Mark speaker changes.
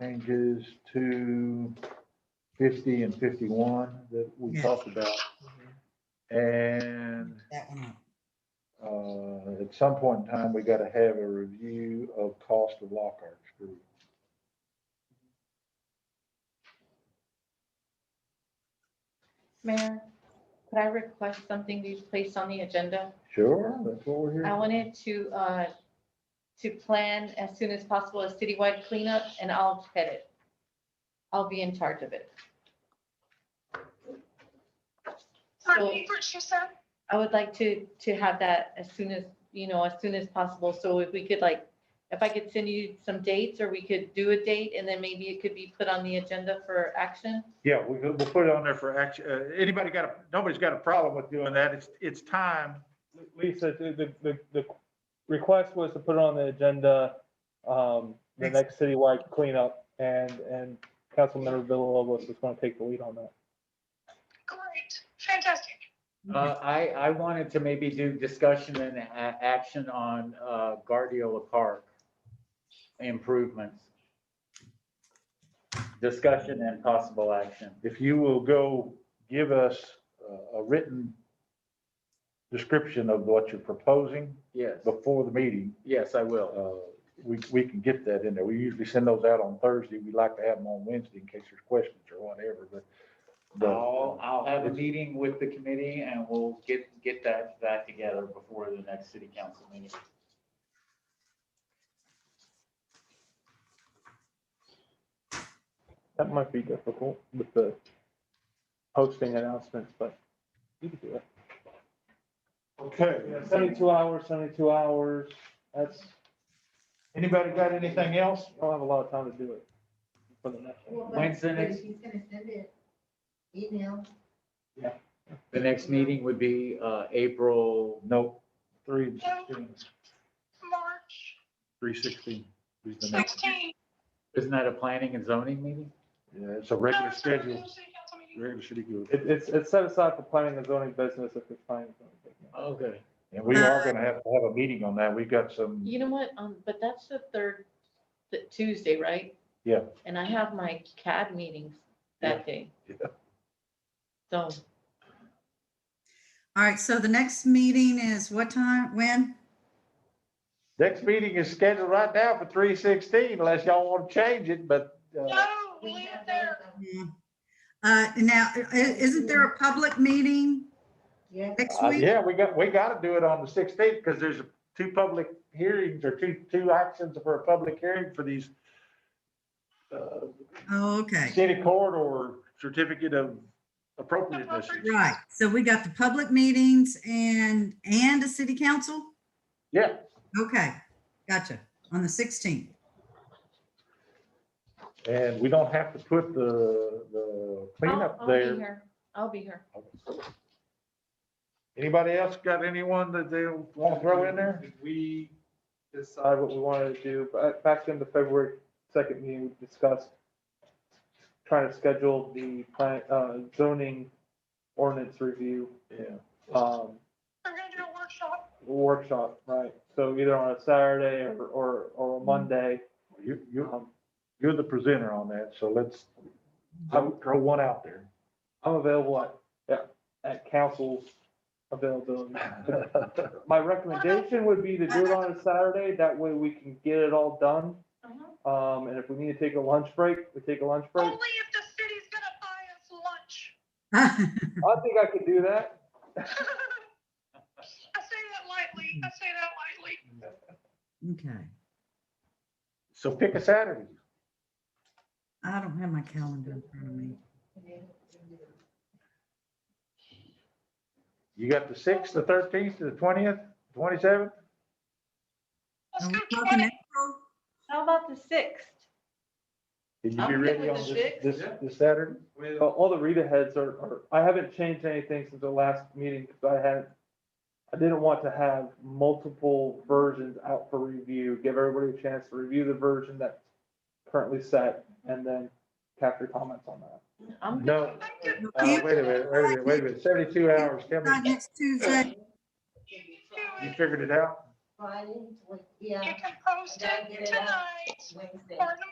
Speaker 1: changes to fifty and fifty-one that we
Speaker 2: Yeah.
Speaker 1: talked about. And
Speaker 2: That one up.
Speaker 1: uh, at some point in time, we gotta have a review of cost of Lockhart Street.
Speaker 3: Mayor, could I request something to be placed on the agenda?
Speaker 1: Sure, that's what we're here.
Speaker 3: I
Speaker 1: for.
Speaker 3: wanted to, uh, to plan as soon as possible a citywide cleanup and I'll head it. I'll be in charge of it. So
Speaker 4: Repeat what she said?
Speaker 3: I would like to, to have that as soon as, you know, as soon as possible. So if we could like, if I could send you some dates or we could do a date and then maybe it could be put on the agenda for action.
Speaker 1: Yeah, we, we'll put it on there for action. Uh, anybody got a, nobody's got a problem with doing that. It's, it's time.
Speaker 5: Lisa, the, the, the, the request was to put it on the agenda, um, the
Speaker 2: Thanks.
Speaker 5: next citywide cleanup, and, and Councilmember Villalobos is gonna take the lead on that.
Speaker 4: Great, fantastic.
Speaker 6: Uh, I, I wanted to maybe do discussion and a- action on, uh, Guardiola Park improvements. Discussion and possible action.
Speaker 1: If you will go give us uh, a written description of what you're proposing
Speaker 6: Yes,
Speaker 1: before the meeting,
Speaker 6: yes, I will.
Speaker 1: uh, we, we can get that in there. We usually send those out on Thursday. We like to have them on Wednesday in case there's questions or whatever, but. but,
Speaker 6: I'll,
Speaker 1: uh,
Speaker 6: I'll have a meeting with the committee and we'll get, get that, that together before the next city council meeting.
Speaker 5: That might be difficult with the posting announcements, but you can do it.
Speaker 1: Okay.
Speaker 5: Seventy-two hours, seventy-two hours, that's,
Speaker 1: Anybody got anything else?
Speaker 5: I don't have a lot of time to do it. for the next one.
Speaker 7: Well, but-
Speaker 6: When's the
Speaker 7: but
Speaker 6: next-
Speaker 7: She's gonna send it email.
Speaker 6: The next meeting would be, uh, April,
Speaker 1: Nope. Three, sixteen.
Speaker 4: March
Speaker 1: Three sixteen is the next.
Speaker 4: 16.
Speaker 6: isn't that a planning and zoning meeting?
Speaker 1: Yeah, it's a
Speaker 4: No,
Speaker 1: regular
Speaker 4: it's not a
Speaker 1: schedule,
Speaker 4: city council meeting.
Speaker 1: regular city good.
Speaker 5: It, it's, it's set aside for planning and zoning business if it's planning. and zoning business.
Speaker 6: Okay.
Speaker 1: And we are gonna have to have a meeting on that. We've got some,
Speaker 3: You know what, um, but that's the third, the Tuesday, right?
Speaker 1: Yeah.
Speaker 3: And I have my CAD meetings that day.
Speaker 1: Yeah.
Speaker 3: So,
Speaker 2: All right, so the next meeting is what time, when?
Speaker 1: next meeting is scheduled right now for three sixteen unless y'all want to change it, but, uh,
Speaker 4: No,
Speaker 7: We
Speaker 4: leave it
Speaker 7: have
Speaker 4: there.
Speaker 7: that, um,
Speaker 2: Yeah. Uh, now, i- isn't there a public meeting
Speaker 7: Yeah,
Speaker 2: next
Speaker 1: uh,
Speaker 2: week?
Speaker 1: yeah, we got, we gotta do it on the sixteenth because there's two public hearings or two, two actions for a public hearing for these uh,
Speaker 2: Oh, okay.
Speaker 1: city corridor certificate of appropriateness.
Speaker 2: Right, so we got the public meetings and, and a city council?
Speaker 1: Yeah,
Speaker 2: Okay, gotcha, on the 16th.
Speaker 1: and we don't have to put the, the
Speaker 3: I'll,
Speaker 1: cleanup
Speaker 3: I'll
Speaker 1: there.
Speaker 3: be here. I'll be here.
Speaker 1: Anybody else got anyone that they want to throw in there?
Speaker 5: Did We decide what we wanted to do, but back in the February second meeting, we discussed trying to schedule the plan, uh, zoning ordinance review,
Speaker 1: Yeah.
Speaker 5: um,
Speaker 4: We're gonna do a workshop.
Speaker 5: workshop, right? So either on a Saturday or, or, or a Monday.
Speaker 1: You, you,
Speaker 5: Um,
Speaker 1: you're the presenter on that, so let's throw throw one out there.
Speaker 5: I'm available at, yeah, at council's availability. My recommendation would be to do it on a Saturday, that way we can get it all done. Um, and if we need to take a lunch break, we take a lunch break.
Speaker 4: Only if the city's gonna buy us lunch.
Speaker 5: I think I could do that.
Speaker 4: I say that lightly, I say that lightly.
Speaker 2: Okay,
Speaker 1: So pick a Saturday.
Speaker 2: I don't have my calendar in front of me.
Speaker 1: You got the sixth, the thirteenth, the twentieth, twenty-seventh?
Speaker 2: Are
Speaker 4: Let's
Speaker 2: we
Speaker 4: go
Speaker 2: talking
Speaker 4: 20.
Speaker 2: April?
Speaker 3: How about the sixth?
Speaker 1: Did you be
Speaker 3: I'm good
Speaker 1: ready
Speaker 3: with
Speaker 1: on
Speaker 3: the
Speaker 1: this,
Speaker 3: sixth.
Speaker 1: this, this Saturday?
Speaker 6: Oh,
Speaker 5: Uh, All the Rita heads are, are, I haven't changed anything since the last meeting, because I had, I didn't want to have multiple versions out for review, give everybody a chance to review the version that's currently set, and then capture comments on that.
Speaker 3: I'm, good.
Speaker 1: No,
Speaker 4: I'm good.
Speaker 1: uh, wait a minute, wait a minute, wait a minute, seventy-two hours, tell
Speaker 2: Not
Speaker 1: me,
Speaker 2: next Tuesday,
Speaker 4: You
Speaker 1: you
Speaker 4: can do it.
Speaker 1: figured it out?
Speaker 7: Friday, twen-
Speaker 4: You
Speaker 7: yeah,
Speaker 4: can post
Speaker 7: I gotta
Speaker 4: it
Speaker 7: get it out.
Speaker 4: tonight
Speaker 7: Wednesday.
Speaker 4: or